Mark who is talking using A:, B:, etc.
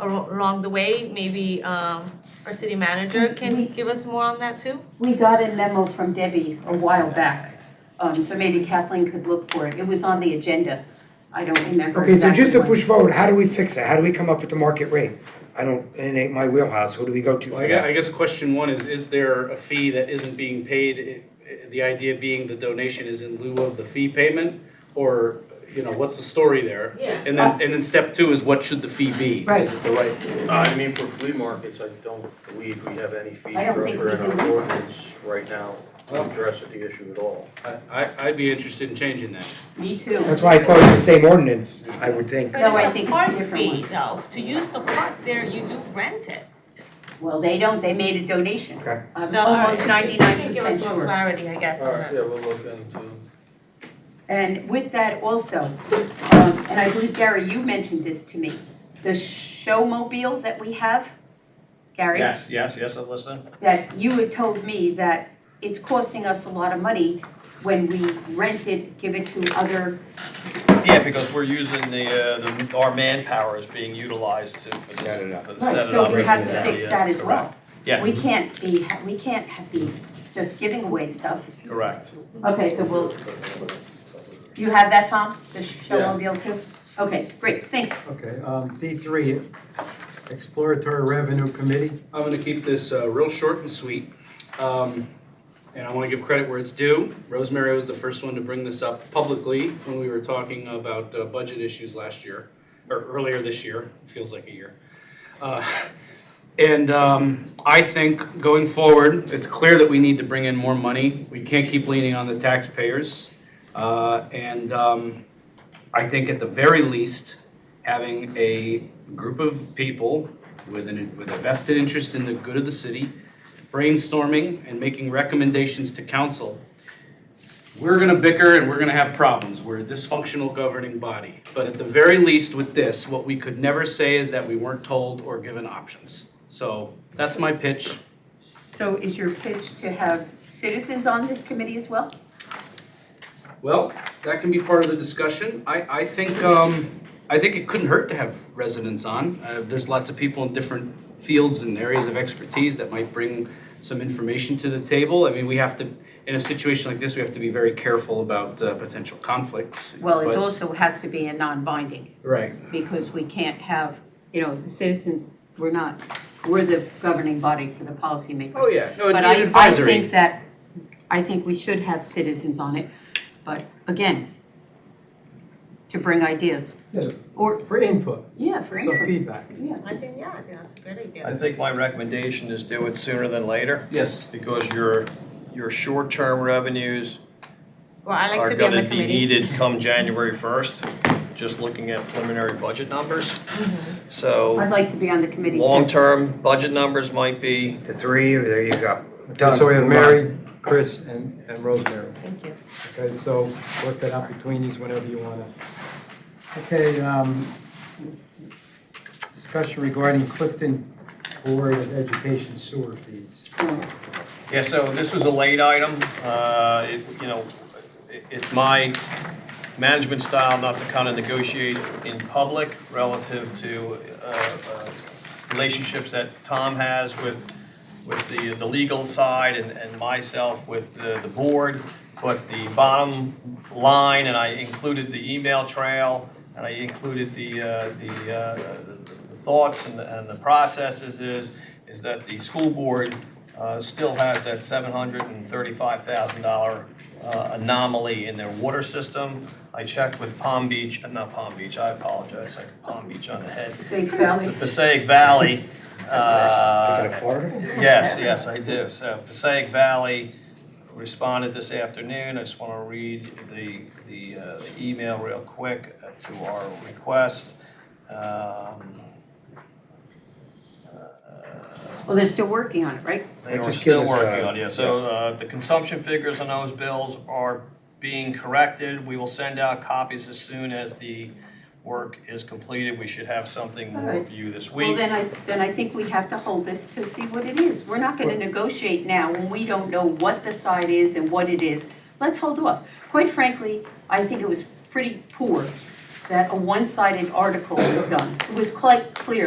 A: al- along the way, maybe um our city manager can give us more on that too?
B: We got a memo from Debbie a while back, um, so maybe Kathleen could look for it. It was on the agenda. I don't remember
C: Okay, so just
B: exactly
C: to
B: when.
C: push forward, how do we fix it? How do we come up with the market rate? I don't, it ain't my wheelhouse, who do we go to
D: Well, I
C: for
D: guess,
C: that?
D: I guess question one is, is there a fee that isn't being paid? I- I- The idea being the donation is in lieu of the fee payment, or, you know, what's the story there?
A: Yeah.
D: And then, and then step two is what should the fee be?
B: Right.
D: Is it the right?
E: Uh, I mean, for flea markets, I don't believe we have any fee
B: I don't think
E: structure in
B: we
E: our
B: do.
E: ordinance right now to address the issue at all.
D: I- I, I'd be interested in changing that.
B: Me too.
C: That's why I thought it was the same ordinance, I would think.
B: No, I think it's a
A: But it's
B: different
A: a park fee though, to use the park there, you do rent it.
B: Well, they don't, they made a donation.
C: Okay.
B: I'm
A: So, all right,
B: almost ninety-nine
A: You can give us
B: percent
A: more
B: sure.
A: clarity, I guess,
E: All
A: on
E: right,
A: that.
E: yeah, we'll look into.
B: And with that also, um, and I believe Gary, you mentioned this to me, the showmobile that we have, Gary?
F: Yes, yes, yes, I'm listening.
B: that you had told me that it's costing us a lot of money when we rent it, give it to other,
F: Yeah, because we're using the, uh, the, our manpower is being utilized to, for the,
C: Set it up.
F: for the set it up.
B: so we have to fix
F: Yeah,
B: that as well.
F: Yeah.
B: We can't be, we can't have- be just giving away stuff.
F: Correct.
B: Okay, so we'll, you have that, Tom? The showmobile too? Okay, great, thanks.
G: Okay, um, D three, exploratory revenue committee.
D: I'm gonna keep this uh, real short and sweet. Um, And I wanna give credit where it's due. Rosemary was the first one to bring this up publicly when we were talking about uh, budget issues last year, or earlier this year, feels like a year. Uh, And um, I think going forward, it's clear that we need to bring in more money. We can't keep leaning on the taxpayers. Uh, And um, I think at the very least, having a group of people with an, with a vested interest in the good of the city, brainstorming and making recommendations to council. We're gonna bicker and we're gonna have problems. We're a dysfunctional governing body. But at the very least with this, what we could never say is that we weren't told or given options. So that's my pitch.
B: So is your pitch to have citizens on this committee as well?
D: Well, that can be part of the discussion. I, I think, um, I think it couldn't hurt to have residents on. Uh, there's lots of people in different fields and areas of expertise that might bring some information to the table. I mean, we have to, in a situation like this, we have to be very careful about, uh, potential conflicts.
B: Well, it
D: but-
B: also has to be a non-binding.
D: Right,
B: because we can't have, you know, the citizens, we're not, we're the governing body for the policymakers.
D: oh, yeah, no, it'd
B: But
D: be an
B: I, I
D: advisory.
B: think that, I think we should have citizens on it, but again, to bring ideas,
G: Yeah,
B: or,
G: For input,
B: yeah, for
G: so
B: input,
G: feedback.
B: yeah.
A: I think, yeah, I think that's a good idea.
F: I think my recommendation is do it sooner than later,
D: Yes,
F: because your, your short-term revenues
H: Well, I like
F: are
H: to be on the
F: gonna be
H: committee.
F: needed come January first, just looking at preliminary budget numbers.
B: I'd
F: So,
B: Mm-hmm. like to be on the committee too.
F: long-term budget numbers might be,
C: The three, there you go.
G: Okay,
C: Done.
G: So we have Mary, Chris, and, and Rosemary.
A: Thank you.
G: Okay, so work that out between these whenever you wanna. Okay, um, discussion regarding Clifton Board of Education sewer fees.
F: Yeah, so this was a late item. Uh, it- You know, it- it's my management style not to kind of negotiate in public relative to uh, uh, relationships that Tom has with, with the, the legal side and and myself with the, the board. But the bottom line, and I included the email trail, and I included the, uh, the uh, the thoughts and the and the processes is, is that the school board uh, still has that $735,000 uh, anomaly in their water system. I checked with Palm Beach, uh, not Palm Beach, I apologize, I got Palm Beach on the head.
B: Say Valley,
F: Passaic Valley.
C: Out
F: uh,
C: of Florida?
F: Yes, yes, I do. So Passaic Valley responded this afternoon. I just want to read the, the uh, the email real quick uh, to our request. Um, uh,
B: well, they're still working on it, right?
F: they
C: Or
F: are
C: just give
F: still
C: us,
F: working
C: uh,
F: on it, so uh, the consumption figures on those bills are being corrected. We will send out copies as soon as the work is completed. We should have something more
B: Alright.
F: for you this
B: Well,
F: week.
B: then I, then I think we have to hold this to see what it is. We're not gonna negotiate now when we don't know what the side is and what it is. Let's hold off. Quite frankly, I think it was pretty poor that a one-sided article was done. It was quite clear